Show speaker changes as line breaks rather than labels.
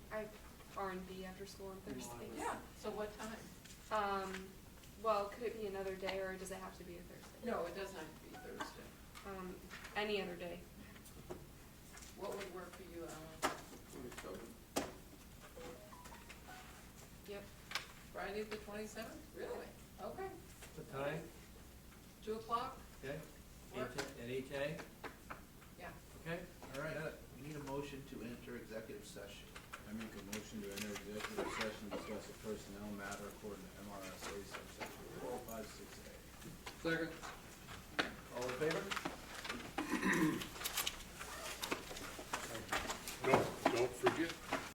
R and B after school on Thursday?
Yeah, so what time?
Um, well, could it be another day or does it have to be a Thursday?
No, it doesn't have to be Thursday.
Um, any other day.
What would work for you, Ellen?
Yep.
Friday the twenty-seventh? Really? Okay.
What time?
Two o'clock?
Okay? Eight,
Work.
A- at eight A?
Yeah.
Okay?
All right, uh, we need a motion to enter executive session.
I make a motion to enter executive session, to discuss a personnel matter according to oh MRSA subsection four five six A.
All in favor?